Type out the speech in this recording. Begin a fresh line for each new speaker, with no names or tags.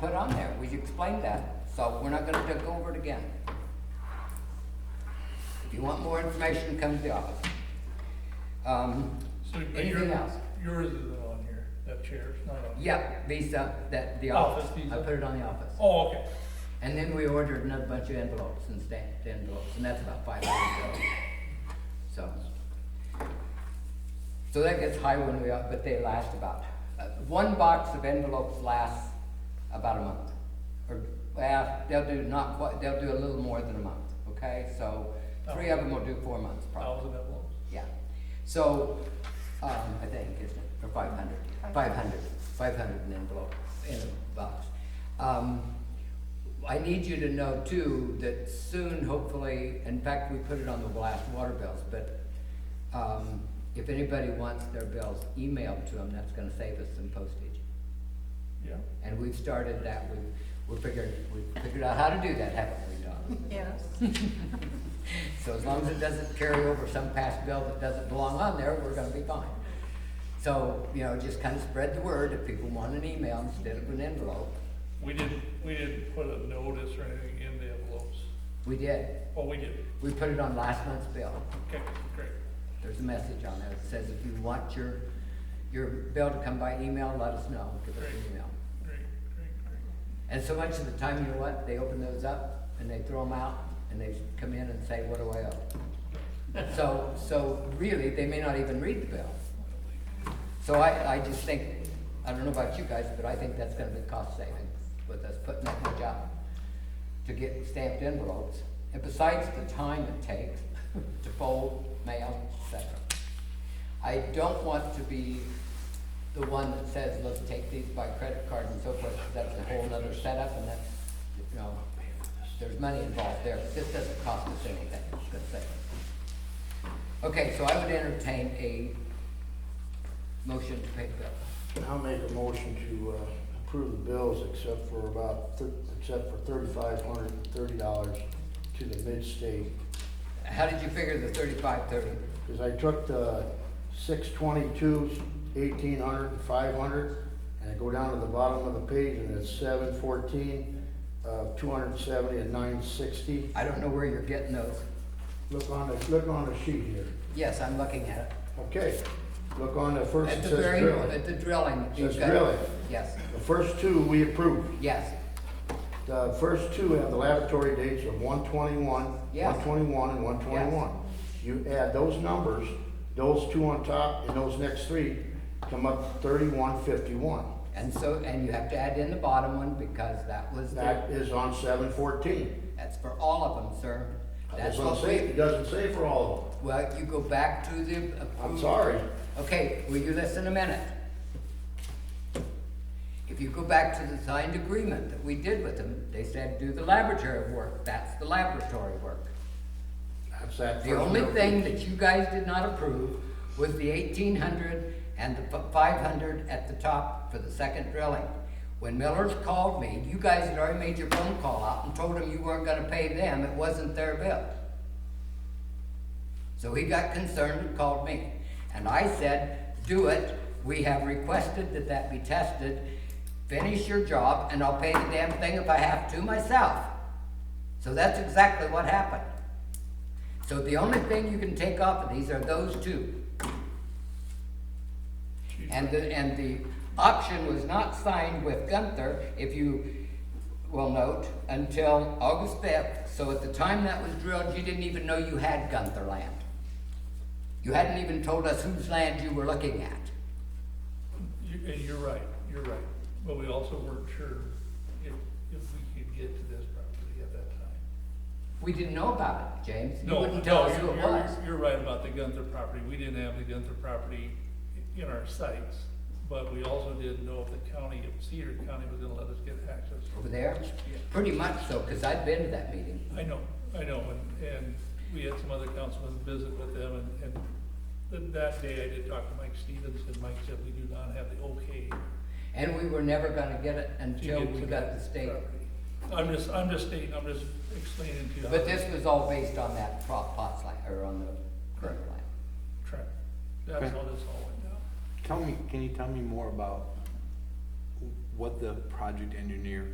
put on there, we explained that, so we're not gonna take over it again. If you want more information, come to the office. Um,
So, but
anything
your-
else?
Yours isn't on here, that chair's not on. here.
Yep, Visa, that, the
Office
office, I
Visa.
put it on the office.
Oh, okay.
And then we ordered another bunch of envelopes and stamped envelopes, and that's about five hundred dollars. So. So that gets high when we, are- but they last about, uh, one box of envelopes lasts about a month. Or, well, they'll do not quite, they'll do a little more than a month, okay? So three of them will do four months probably.
Thousand envelopes.
Yeah, so, um, I think, isn't it, or five hundred, five hundred, five hundred in envelope, in a box. Um, I need you to know too, that soon, hopefully, in fact, we put it on the last water bills, but, um, if anybody wants their bills emailed to them, that's gonna save us some postage.
Yeah.
And we've started that, we, we're figuring, we've figured out how to do that, haven't we, Donna?
Yes.
So as long as it doesn't carry over some past bill that doesn't belong on there, we're gonna be fine. So, you know, just kind of spread the word if people want an email instead of an envelope.
We didn't, we didn't put a notice or anything in the envelopes.
We did.
Oh, we did.
We put it on last month's bill.
Okay, great.
There's a message on there that says if you want your, your bill to come by email, let us know. Give us an email.
Great, great, great.
And so much of the time, you know what? They open those up and they throw them out and they come in and say, what do I owe? So, so really, they may not even read the bill. So I, I just think, I don't know about you guys, but I think that's gonna be cost saving with us putting that much out to get stamped envelopes. And besides the time it takes to fold, mail, etc. I don't want to be the one that says, let's take these by credit card and so forth, 'cause that's a whole nother setup and that's, you know, there's money involved there. This doesn't cost us anything, it's good savings. Okay, so I would entertain a motion to pay the bill.
I'll make a motion to uh, approve the bills except for about, thir- except for thirty-five hundred and thirty dollars to the mid-state.
How did you figure the thirty-five, thirty?
Because I took the six twenty-two, eighteen hundred, and five hundred, and I go down to the bottom of the page and it's seven fourteen, uh, two hundred and seventy and nine sixty.
I don't know where you're getting those.
Look on the, look on the sheet here.
Yes, I'm looking at it.
Okay, look on the first,
At
it
the
says
very,
drilling.
at the drilling.
Says
you've got-
drilling.
Yes,
The first two we approved.
yes.
The first two have the laboratory dates of one twenty-one,
Yes.
one twenty-one, and one twenty-one. You add those numbers, those two on top and those next three come up thirty-one fifty-one.
And so, and you have to add in the bottom one because that was
That
the,
is on seven fourteen.
that's for all of them, sir. That's
That's what
what
I'm saying,
we,
it doesn't say for all
well, you go back to the. approved-
sorry.
Okay, will you listen a minute? If you go back to the signed agreement that we did with them, they said do the laboratory work, that's the laboratory work.
of them. That's that
The
first
only
bill.
thing that you guys did not approve was the eighteen hundred and the five hundred at the top for the second drilling. When Miller's called me, you guys had already made your phone call out and told him you weren't gonna pay them, it wasn't their bill. So he got concerned and called me, and I said, do it, we have requested that that be tested, finish your job, and I'll pay the damn thing if I have to myself. So that's exactly what happened. So the only thing you can take off of these are those two.
Chief,
And the, and the option was not signed with Gunther, if you will note, until August fifth. So at the time that was drilled, you didn't even know you had Gunther land. You hadn't even told us whose land you were looking at.
You, and you're right, you're right. But we also weren't sure if, if we could get to this property at that time.
We didn't know about it, James. You
No,
wouldn't tell
no,
us who
you're-
it
you're-
was.
You're right about the Gunther property. We didn't have the Gunther property i- in our sites. But we also didn't know if the county, if Cedar County was gonna let us get access.
Over there?
Yeah.
Pretty much so, because I'd been to that meeting.
I know, I know, and, and we had some other councilmen visit with them, and, and th- that day I did talk to Mike Stevens, and Mike said we do not have the okay
And we were never gonna get it
to
until
get
we
to
got the
that
state.
property. I'm just, I'm just stating, I'm just explaining to you. how
But this was all based on that pro- POTS line, or on the current line.
the track- That's how this all went down.
Tell me, can you tell me more about what the project engineer